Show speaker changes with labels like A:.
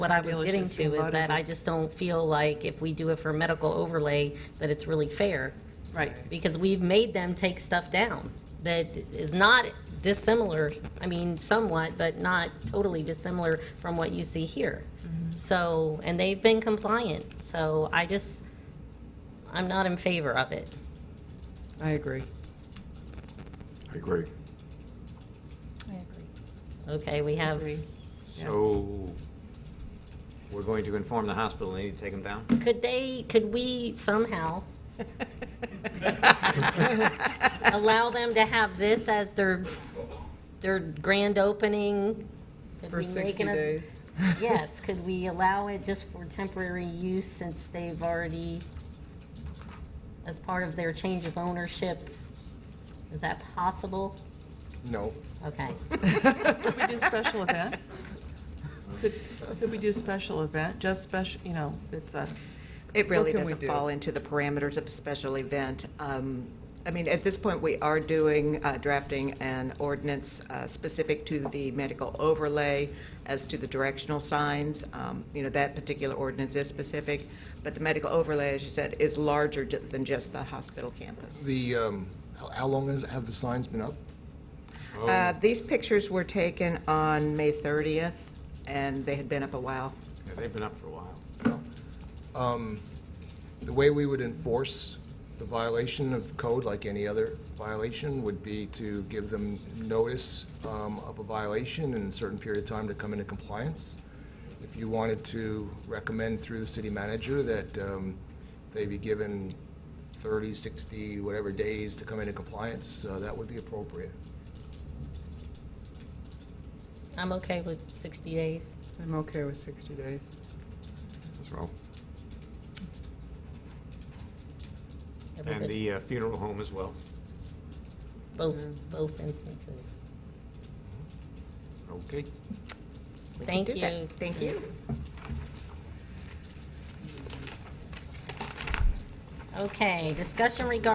A: What I was
B: Dealers
A: getting
B: just
A: to
B: being
A: is that
B: loaded
A: I
B: with-
A: just don't feel like if we do it for medical overlay, that it's really fair,
B: Right.
A: because we've made them take stuff down that is not dissimilar, I mean, somewhat, but not totally dissimilar from what you see here.
B: Mm-hmm.
A: So, and they've been compliant, so I just, I'm not in favor of it.
B: I agree.
C: I agree.
A: Okay, we have,
B: Yeah.
D: So we're going to inform the hospital they need to take them down?
A: could they, could we somehow allow them to have this as their, their grand opening? Could
B: For
A: we make
B: 60
A: an-
B: days.
A: Yes, could we allow it just for temporary use since they've already, as part of their change of ownership? Is that possible?
C: No.
A: Okay,
B: Could we do a special event? Could could we do a special event, just special, you know, it's a,
E: It
B: What
E: really
B: can we
E: doesn't
B: do?
E: fall into the parameters of a special event. Um, I mean, at this point, we are doing, uh, drafting an ordinance uh, specific to the medical overlay as to the directional signs. Um, You know, that particular ordinance is specific, but the medical overlay, as you said, is larger ju- than just the hospital campus.
C: The, um, how- how long has- have the signs been up?
E: Uh, These pictures were taken on May 30th, and they had been up a while.
D: Yeah, They've been up for a while.
C: The way we would enforce the violation of code, like any other violation, would be to give them notice um, of a violation in a certain period of time to come into compliance. If you wanted to recommend through the city manager that um, they be given 30, 60, whatever days to come into compliance, uh, that would be appropriate.
A: I'm okay with 60 days.
B: I'm okay with 60 days.
C: That's wrong.
D: And
A: Everybody-
D: the uh, funeral home as well.
A: Both, both instances.
D: Okay.
E: We can
A: Thank
E: do that.
A: you.
E: Thank you.
A: Okay, discussion regarding